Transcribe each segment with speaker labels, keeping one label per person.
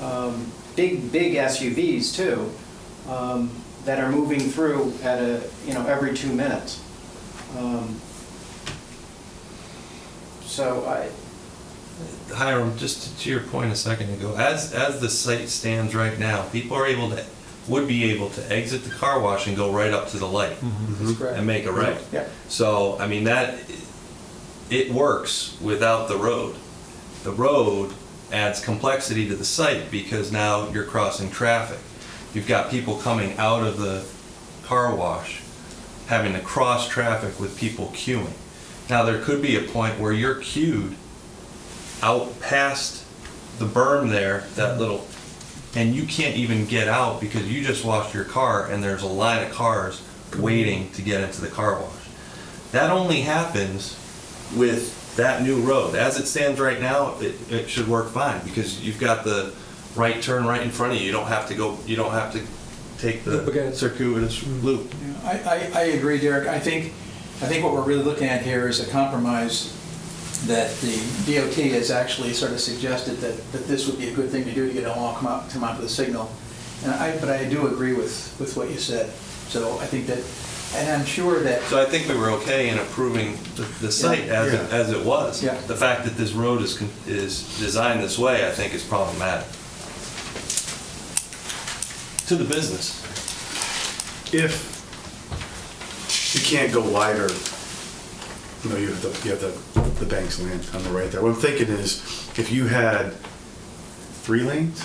Speaker 1: um, big, big SUVs too, um, that are moving through at a, you know, every two minutes. Um, So I,
Speaker 2: Hiram, just to your point a second ago, as, as the site stands right now, people are able to, would be able to exit the car wash and go right up to the light
Speaker 1: Mm-hmm. that's correct.
Speaker 2: and make a right.
Speaker 1: Yeah.
Speaker 2: So, I mean, that, it works without the road. The road adds complexity to the site because now you're crossing traffic. You've got people coming out of the car wash, having to cross traffic with people queuing. Now, there could be a point where you're queued out past the berm there, that little, and you can't even get out because you just washed your car and there's a line of cars waiting to get into the car wash. That only happens with that new road. As it stands right now, it, it should work fine because you've got the right turn right in front of you. You don't have to go, you don't have to take the
Speaker 3: Okay.
Speaker 2: circuitous loop.
Speaker 4: Yeah, I, I, I agree, Derek. I think, I think what we're really looking at here is a compromise that the DOT has actually sort of suggested that, that this would be a good thing to do to get them all come out, come out to the signal. And I, but I do agree with, with what you said. So I think that, and I'm sure that,
Speaker 2: So I think we were okay in approving the, the site as, it- as it was.
Speaker 4: Yeah.
Speaker 2: The fact that this road is, con- is designed this way, I think is problematic. To the business.
Speaker 5: if you can't go wider, you know, you have the, you have the, the bank's land on the right there. What I'm thinking is, if you had three lanes,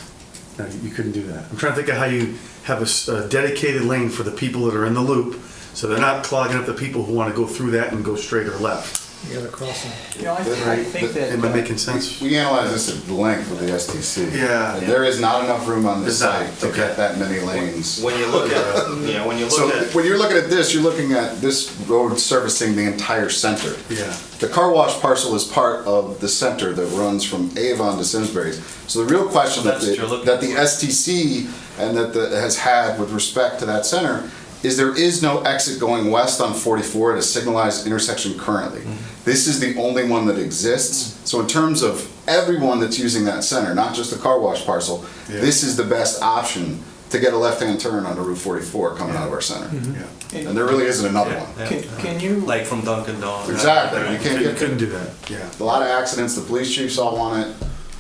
Speaker 5: no, you couldn't do that. I'm trying to think of how you have a s- a dedicated lane for the people that are in the loop, so they're not clogging up the people who want to go through that and go straight or left.
Speaker 3: You gotta cross them.
Speaker 4: you know, I think I think that.
Speaker 5: Am I making sense?
Speaker 6: We analyzed this at length with the STC.
Speaker 5: Yeah.
Speaker 6: And There is not enough room on this
Speaker 5: There's not,
Speaker 6: site to
Speaker 5: okay.
Speaker 6: get that many lanes.
Speaker 7: When you look at, yeah, when you
Speaker 6: So
Speaker 7: look at,
Speaker 6: when you're looking at this, you're looking at this road servicing the entire center.
Speaker 5: Yeah.
Speaker 6: The car wash parcel is part of the center that runs from Avon to Simsbury's. So the real question that
Speaker 2: That's
Speaker 6: the,
Speaker 2: what you're looking
Speaker 6: that the
Speaker 2: for.
Speaker 6: STC and that the, has had with respect to that center is there is no exit going west on 44 at a signalized intersection currently. This is the only one that exists. So in terms of everyone that's using that center, not just the car wash parcel,
Speaker 5: Yeah.
Speaker 6: this is the best option to get a left-hand turn onto Route 44 coming out of our center.
Speaker 5: Yeah.
Speaker 6: And there really isn't another
Speaker 2: Yeah,
Speaker 6: one.
Speaker 2: yeah.
Speaker 4: uh, Can, can you?
Speaker 2: Like from Dunkin' Donuts.
Speaker 6: Exactly. You can't
Speaker 5: You
Speaker 6: get
Speaker 5: couldn't do that, yeah.
Speaker 6: a lot of accidents, the police chiefs all want it,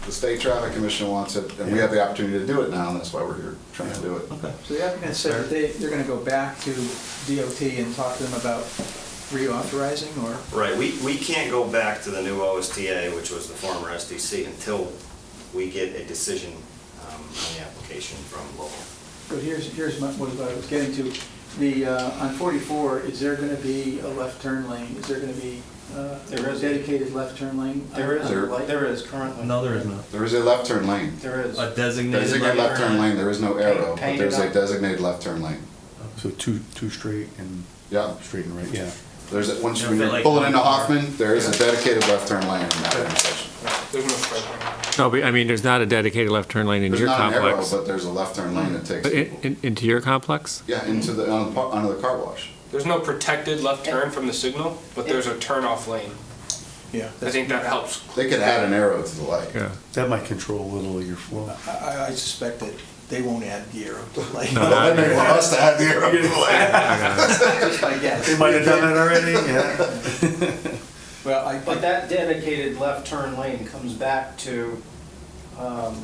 Speaker 6: the state traffic commission wants it, and we have the opportunity to do it now, and that's why we're here trying to do it.
Speaker 4: So the applicant said that they, they're gonna go back to DOT and talk to them about reauthorizing or?
Speaker 7: right, we, we can't go back to the new OSTA, which was the former SDC, until we get a decision um, on the application from local.
Speaker 4: But here's, here's my- what I was getting to. The, uh, on 44, is there going to be a left turn lane? Is there going to be uh,
Speaker 1: There
Speaker 4: a
Speaker 1: is.
Speaker 4: dedicated left turn lane? on-
Speaker 1: There is,
Speaker 4: on the light?
Speaker 1: there is currently.
Speaker 2: No, there is not.
Speaker 6: There is a left turn lane.
Speaker 1: There is.
Speaker 2: A designated.
Speaker 6: Designated left turn lane, there is no arrow, but
Speaker 1: Painted
Speaker 6: there's a
Speaker 1: up.
Speaker 6: designated left turn lane.
Speaker 5: So two, two straight and
Speaker 6: Yeah,
Speaker 5: Oh. straight and right, yeah.
Speaker 6: there's, a- once you
Speaker 2: Yeah, but like-
Speaker 6: pull it into Hoffman, there is a dedicated left turn lane in that intersection.
Speaker 8: No, but I mean, there's not a dedicated left turn lane into
Speaker 6: There's
Speaker 8: your
Speaker 6: not an arrow,
Speaker 8: complex.
Speaker 6: but there's a left turn lane that takes,
Speaker 8: But in- in- Into your complex?
Speaker 6: yeah, into the, on the par- onto the car wash.
Speaker 9: There's no protected left turn from the signal, but there's a turn-off lane.
Speaker 4: Yeah.
Speaker 9: I think that helps.
Speaker 6: They could add an arrow to the light.
Speaker 8: Yeah.
Speaker 5: That might control a little of your flow.
Speaker 4: I- I, I suspect that they won't add gear up to the light.
Speaker 6: Well, then they want us to add the arrow to the light.
Speaker 4: Just my guess.
Speaker 5: They might have done that already, yeah.
Speaker 4: Well, I,
Speaker 1: But that dedicated left turn lane comes back to um,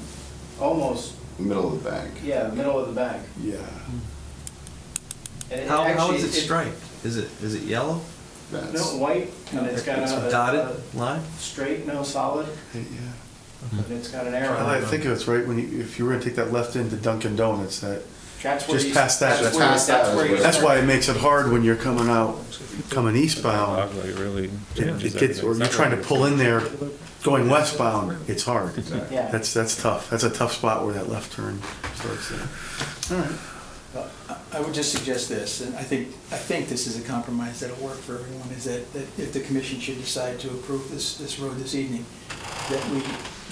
Speaker 1: almost,
Speaker 6: Middle of the bank.
Speaker 1: yeah, middle of the bank.
Speaker 5: Yeah.
Speaker 1: And it
Speaker 2: How, how
Speaker 1: actually-
Speaker 2: is it striped? Is it, is it yellow?
Speaker 1: No,
Speaker 6: That's-
Speaker 1: white, and it's got
Speaker 2: It's
Speaker 1: a-
Speaker 2: a
Speaker 1: a
Speaker 2: dotted line?
Speaker 1: straight, no solid,
Speaker 5: Yeah.
Speaker 1: and it's got an
Speaker 5: Now that I
Speaker 1: arrow.
Speaker 5: think it's right when you, if you were gonna take that left into Dunkin' Donuts, that,
Speaker 1: That's where
Speaker 5: Just
Speaker 1: you-
Speaker 5: past
Speaker 1: that's
Speaker 5: that, that's
Speaker 1: where-
Speaker 6: past that
Speaker 1: that's
Speaker 6: is
Speaker 1: where you
Speaker 6: where-
Speaker 5: that's why
Speaker 1: start.
Speaker 5: it makes it hard when you're coming out, coming eastbound.
Speaker 8: really.
Speaker 5: It it gets, or you're trying to pull in there, going westbound, it's hard.
Speaker 1: Yeah.
Speaker 5: That's, that's tough. That's a tough spot where that left turn starts there. All right.
Speaker 4: I would just suggest this, and I think, I think this is a compromise that'll work for everyone, is that, that if the commission should decide to approve this, this road this evening, that we,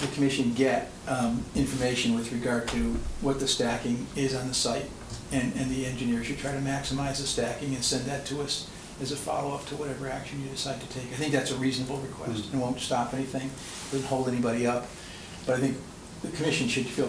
Speaker 4: the commission get um, information with regard to what the stacking is on the site, and, and the engineer should try to maximize the stacking and send that to us as a follow-up to whatever action you decide to take. I think that's a reasonable request, and won't stop anything, doesn't hold anybody up, but I think the commission should feel